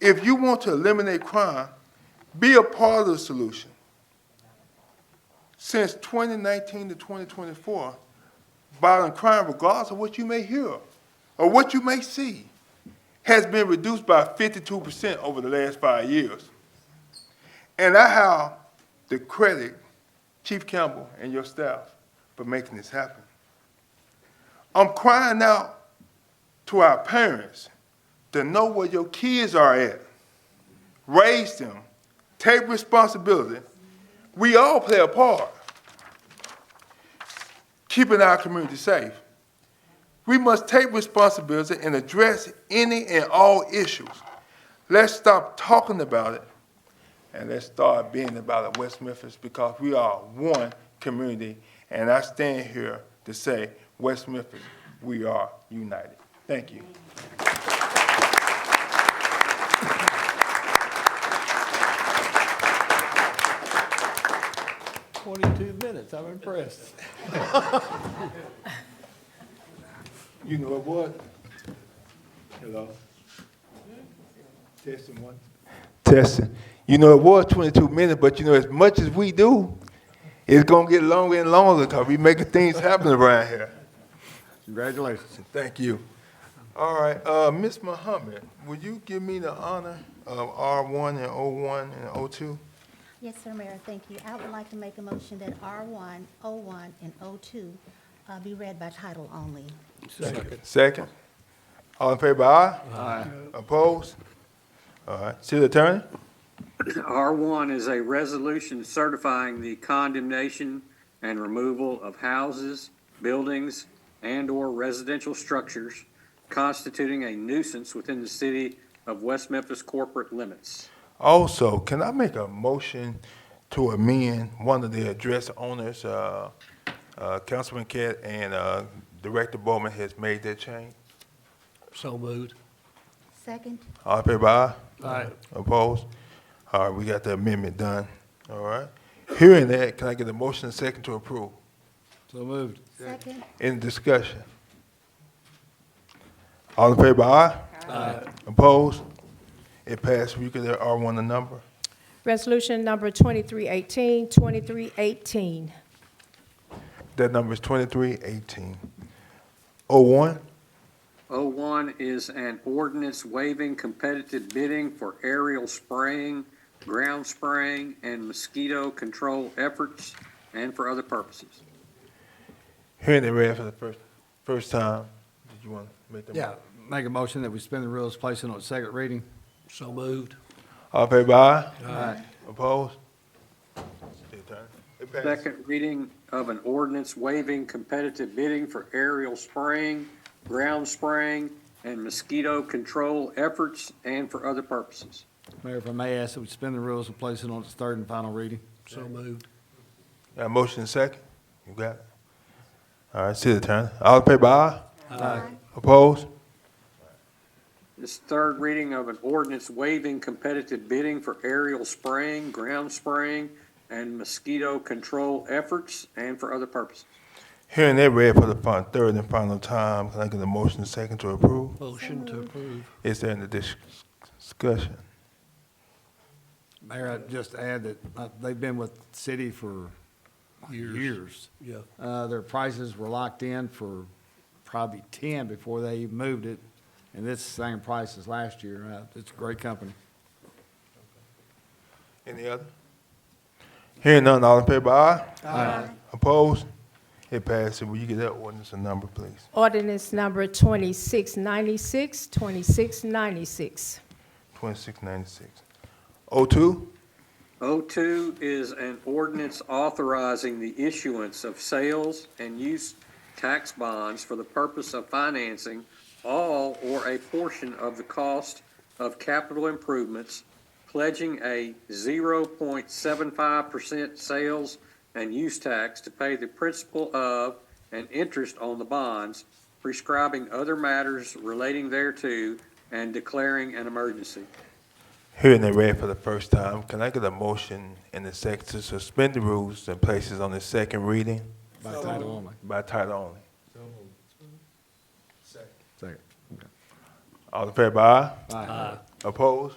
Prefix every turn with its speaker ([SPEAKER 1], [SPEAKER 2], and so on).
[SPEAKER 1] if you want to eliminate crime, be a part of the solution. Since 2019 to 2024, violent crime, regardless of what you may hear or what you may see, has been reduced by 52% over the last five years. And I have the credit, Chief Campbell and your staff, for making this happen. I'm crying out to our parents to know where your kids are at. Raise them, take responsibility. We all play a part. Keeping our community safe. We must take responsibility and address any and all issues. Let's stop talking about it and let's start being about it, West Memphis, because we are one community. And I stand here to say, West Memphis, we are united. Thank you.
[SPEAKER 2] Twenty-two minutes, I'm impressed.
[SPEAKER 1] You know what? Hello? Testing one. Testing. You know, it was 22 minutes, but you know, as much as we do, it's going to get longer and longer because we making things happen around here.
[SPEAKER 2] Congratulations.
[SPEAKER 1] Thank you. All right, uh, Ms. Muhammad, would you give me the honor of R1 and O1 and O2?
[SPEAKER 3] Yes, sir, Mayor, thank you. I would like to make a motion that R1, O1, and O2 uh, be read by title only.
[SPEAKER 1] Second. All in favor, aye? Aye. Opposed? All right, city attorney?
[SPEAKER 4] R1 is a resolution certifying the condemnation and removal of houses, buildings, and/or residential structures constituting a nuisance within the city of West Memphis corporate limits.
[SPEAKER 1] Also, can I make a motion to amend one of the address owners, uh, uh, Councilman Cat and, uh, Director Bowman has made that change?
[SPEAKER 2] So moved.
[SPEAKER 3] Second?
[SPEAKER 1] All in favor, aye?
[SPEAKER 2] Aye.
[SPEAKER 1] Opposed? All right, we got the amendment done, all right? Hearing that, can I get a motion and second to approve?
[SPEAKER 2] So moved.
[SPEAKER 3] Second?
[SPEAKER 1] Any discussion? All in favor, aye? Aye. Opposed? It passed, we could, R one the number.
[SPEAKER 5] Resolution number 2318, 2318.
[SPEAKER 1] That number is twenty-three eighteen. Oh, one?
[SPEAKER 4] O1 is an ordinance waiving competitive bidding for aerial spraying, ground spraying, and mosquito control efforts, and for other purposes.
[SPEAKER 1] Hearing it read for the first, first time, did you want to make the?
[SPEAKER 6] Yeah, make a motion that we spend the rules, place it on second reading.
[SPEAKER 2] So moved.
[SPEAKER 1] All in favor, aye?
[SPEAKER 6] Aye.
[SPEAKER 1] Opposed? City attorney? It passed.
[SPEAKER 4] Second reading of an ordinance waiving competitive bidding for aerial spraying, ground spraying, and mosquito control efforts and for other purposes.
[SPEAKER 6] Mayor, if I may ask that we spend the rules and place it on its third and final reading.
[SPEAKER 2] So moved.
[SPEAKER 1] Got a motion and second? You got it? All right, city attorney, all in favor, aye?
[SPEAKER 3] Aye.
[SPEAKER 1] Opposed?
[SPEAKER 4] This third reading of an ordinance waiving competitive bidding for aerial spraying, ground spraying, and mosquito control efforts and for other purposes.
[SPEAKER 1] Hearing it read for the fin- third and final time, can I get a motion and second to approve?
[SPEAKER 2] Motion to approve.
[SPEAKER 1] Is there any dis- discussion?
[SPEAKER 6] Mayor, I'd just add that uh, they've been with the city for
[SPEAKER 2] Years.
[SPEAKER 6] years.
[SPEAKER 2] Yeah.
[SPEAKER 6] Uh, Their prices were locked in for probably 10 before they even moved it, and it's the same price as last year. Uh, It's a great company.
[SPEAKER 1] Any other? Hearing none, all in favor, aye? Aye. Opposed? It passes, will you get that ordinance a number, please?
[SPEAKER 5] Ordinance number 2696, 2696.
[SPEAKER 1] Twenty-six ninety-six. O two?
[SPEAKER 4] O2 is an ordinance authorizing the issuance of sales and use tax bonds for the purpose of financing all or a portion of the cost of capital improvements, pledging a 0.75% sales and use tax to pay the principal of and interest on the bonds, prescribing other matters relating thereto, and declaring an emergency.
[SPEAKER 1] Hearing it read for the first time, can I get a motion in the second to suspend the rules and places on the second reading
[SPEAKER 6] By title only.
[SPEAKER 1] by title only?
[SPEAKER 6] Second.
[SPEAKER 1] All in favor, aye?
[SPEAKER 6] Aye.
[SPEAKER 1] Opposed?